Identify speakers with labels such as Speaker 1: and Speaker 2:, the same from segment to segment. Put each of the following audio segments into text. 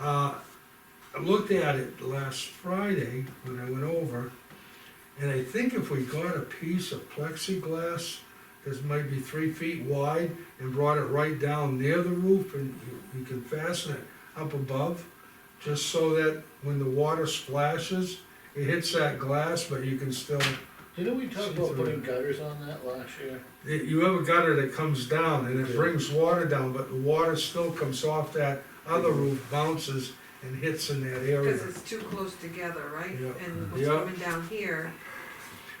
Speaker 1: Uh, I looked at it last Friday when I went over, and I think if we got a piece of plexiglass that's maybe three feet wide and brought it right down near the roof and you- you can fasten it up above, just so that when the water splashes, it hits that glass, but you can still,
Speaker 2: Didn't we talk
Speaker 1: See
Speaker 2: about
Speaker 1: through
Speaker 2: putting
Speaker 1: it.
Speaker 2: gutters on that last year?
Speaker 1: you have a gutter that comes down and it
Speaker 2: Yeah.
Speaker 1: brings water down, but the water still comes off that other roof, bounces and hits in that area.
Speaker 3: Cause it's too close together, right?
Speaker 1: Yeah.
Speaker 3: And what's
Speaker 1: Yeah.
Speaker 3: coming down here,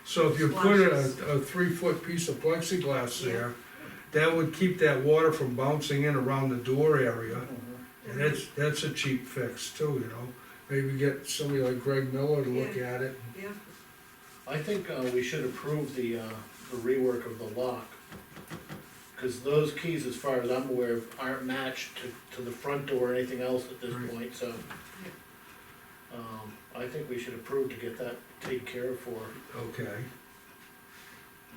Speaker 1: So if you put
Speaker 3: Splashes.
Speaker 1: a, a three-foot piece of plexiglass there, that would keep that water from bouncing in around the door area. And that's, that's a cheap fix too, you know? Maybe get somebody like Greg Miller to look at it.
Speaker 3: yeah,
Speaker 2: I think, uh, we should approve the, uh, the rework of the lock. Cause those keys, as far as I'm aware, of, aren't matched to, to the front door or anything else at this
Speaker 1: Right.
Speaker 2: point, so. Um, I think we should approve to get that taken care of for,
Speaker 1: Okay,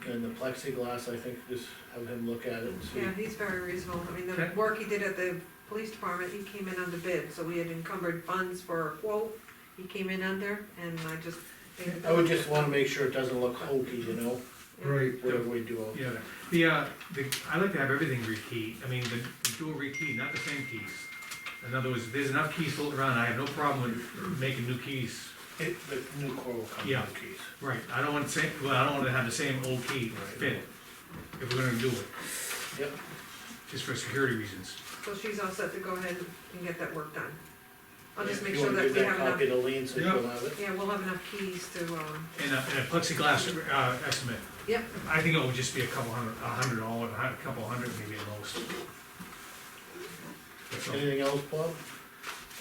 Speaker 2: and the plexiglass, I think, just have him look at it and see.
Speaker 3: yeah, he's very reasonable, I mean, the
Speaker 1: Okay.
Speaker 3: work he did at the police department, he came in under bid, so we had encumbered funds for a quote, he came in under, and I just. think
Speaker 2: I would just wanna make sure it doesn't look hokey, you know,
Speaker 3: Yeah.
Speaker 1: right.
Speaker 2: whatever we do.
Speaker 4: Yeah, the, uh, the, I like to have everything rekeyed, I mean, the the dual rekey, not the same keys. In other words, if there's enough keys floating around, I have no problem with making new keys.
Speaker 2: It, the new core will come
Speaker 4: Yeah.
Speaker 2: with the keys.
Speaker 4: Right. I don't want to say, well, I don't want to have the same old key fit, if we're gonna do it,
Speaker 2: Yep,
Speaker 4: just for security reasons.
Speaker 3: So she's all set to go ahead and get that work done. I'll just
Speaker 2: If
Speaker 3: make
Speaker 2: you
Speaker 3: sure
Speaker 2: wanna
Speaker 3: that
Speaker 2: give
Speaker 3: we have enough,
Speaker 2: Copy to Lean so
Speaker 1: Yeah.
Speaker 2: you'll have it.
Speaker 3: yeah, we'll have enough keys to, um,
Speaker 4: And a, and a plexiglass, uh, estimate,
Speaker 3: yep,
Speaker 4: I think it would just be a couple hundred, a hundred dollars, a hun- a couple hundred maybe at most. That's all.
Speaker 2: Anything else, Bob?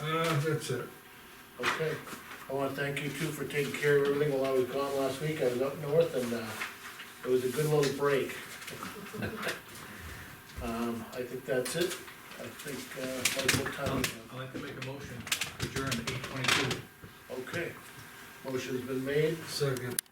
Speaker 1: Uh, that's it.
Speaker 2: Okay. I wanna thank you too for taking care of everything while I was gone last week. I was up north and, uh, it was a good little break. Um, I think that's it. I think, uh, that's what time
Speaker 4: I'll
Speaker 2: we have.
Speaker 4: I'll have Um, to make a motion, to adjourn at eight twenty-two.
Speaker 2: Okay. Motion's been made
Speaker 1: Second,